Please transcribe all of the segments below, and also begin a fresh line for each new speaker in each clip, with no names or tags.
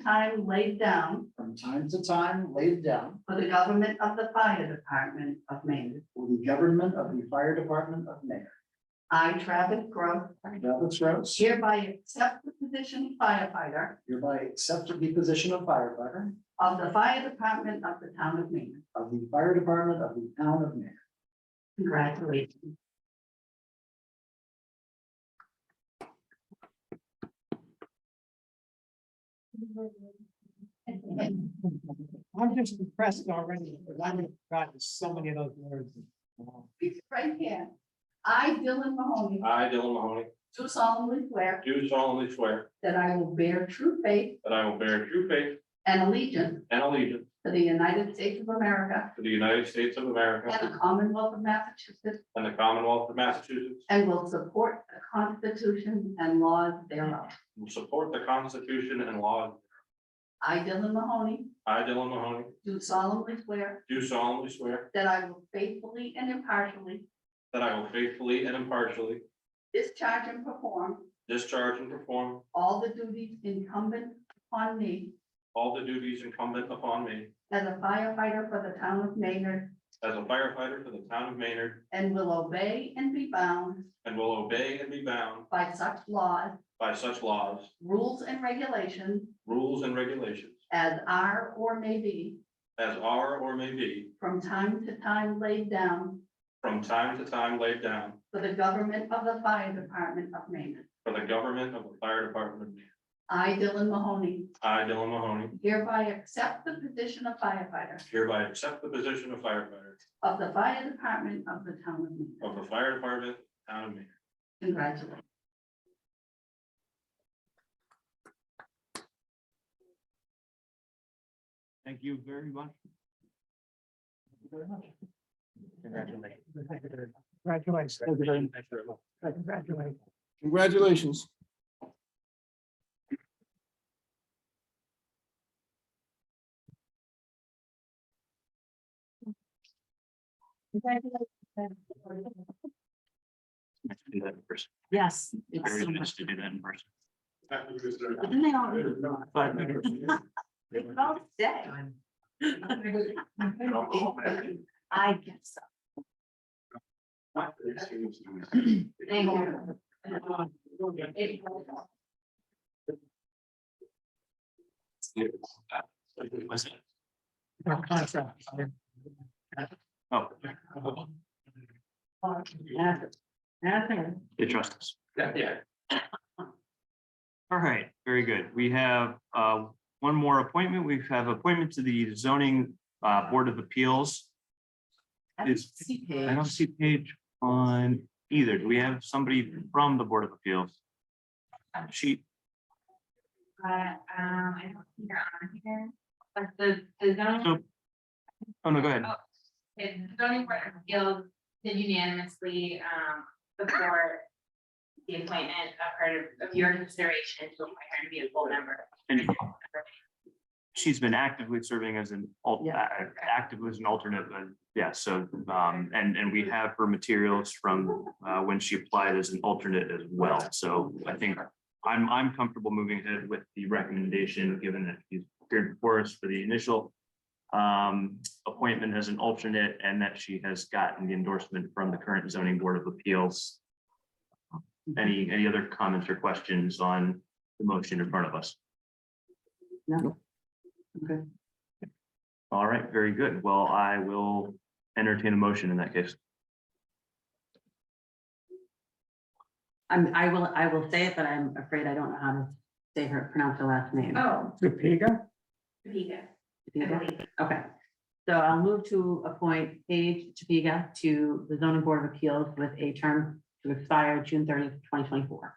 time laid down
from time to time laid down
for the government of the fire department of Maine.
for the government of the fire department of Mayor.
I, Travis Gross,
Travis Rose
hereby accept the position firefighter
hereby accept the position of firefighter
of the fire department of the town of Maine.
of the fire department of the town of Mayor.
Congratulations.
I'm just impressed already, because I have forgotten so many of those words.
Right here. I, Dylan Mahoney,
I, Dylan Mahoney,
do solemnly swear
do solemnly swear
that I will bear true faith
that I will bear true faith
and allegiance
and allegiance
to the United States of America
to the United States of America
and the Commonwealth of Massachusetts,
and the Commonwealth of Massachusetts,
and will support the Constitution and laws thereof.
and support the Constitution and laws.
I, Dylan Mahoney,
I, Dylan Mahoney,
do solemnly swear
do solemnly swear
that I will faithfully and impartially
that I will faithfully and impartially
discharge and perform
discharge and perform
all the duties incumbent upon me
all the duties incumbent upon me
as a firefighter for the town of Maynard,
as a firefighter for the town of Maynard
and will obey and be bound
and will obey and be bound
by such laws,
by such laws,
rules, and regulations
rules, and regulations
as are or may be
as are or may be
from time to time laid down
from time to time laid down
for the government of the fire department of Maynard.
for the government of the fire department. of Maynard.
I, Dylan Mahoney,
I, Dylan Mahoney,
hereby accept the position of firefighter
hereby accept the position of firefighter
of the fire department of the town of Maynard.
of the fire department, town of Maynard.
Congratulations.
Thank you very much. Congratulations. Congratulations. Congratulations.
Congratulations.
Yes. it's so much-
to do that in person.
Didn't they all-
Five minutes.
they both say. I guess so. Thank you.
Was it? Oh. You trust us.
Yeah.
All right, very good. We have uh, one more appointment. We have appointment to the zoning uh, Board of Appeals.
I
Is-
don't see
I
Paige.
don't see Paige on either. Do we have somebody from the Board of Appeals? She,
But, um, I don't think they're on here, but the, the zoning,
so. Oh, no, go ahead.
the zoning board of appeals did unanimously, um, before the appointment of her, of your consideration to appoint her to be a full member.
And she's been actively serving as an alt, a- active as an alternate, but yeah, so, um, and, and we have her materials from, uh, when she applied as an alternate as well. So I think I'm, I'm comfortable moving ahead with the recommendation, given that she's appeared before us for the initial um, appointment as an alternate and that she has gotten the endorsement from the current zoning board of appeals. Any, any other comments or questions on the motion in front of us? All right, very good. Well, I will entertain a motion in that case.
I'm, I will, I will say it, but I'm afraid I don't know how to say her, pronounce her last name.
Oh,
Topeka?
Rita, I
Topiga?
believe.
Okay, so I'll move to appoint Paige Topiga to the zoning board of appeals with a term to expire June thirtieth, twenty twenty-four.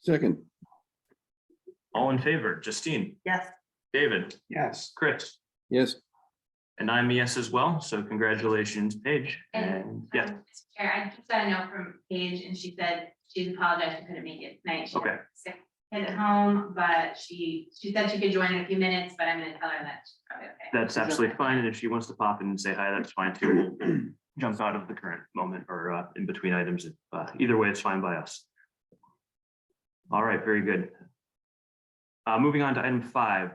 Second,
All in favor, Justine,
Yes.
David,
Yes.
Chris,
yes,
and I'm a yes as well. So congratulations, Paige. And
And,
yeah,
um, Mr. Chair, I just got a note from Paige and she said she apologized, she couldn't make it tonight. She had
Okay.
sick kids at home, but she, she said she could join in a few minutes, but I'm gonna tell her that she's probably okay.
that's absolutely fine. And if she wants to pop in and say hi, that's fine too. We'll Jump out of the current moment or uh, in between items. Uh, Either way, it's fine by us. All right, very good. Uh, Moving on to item five,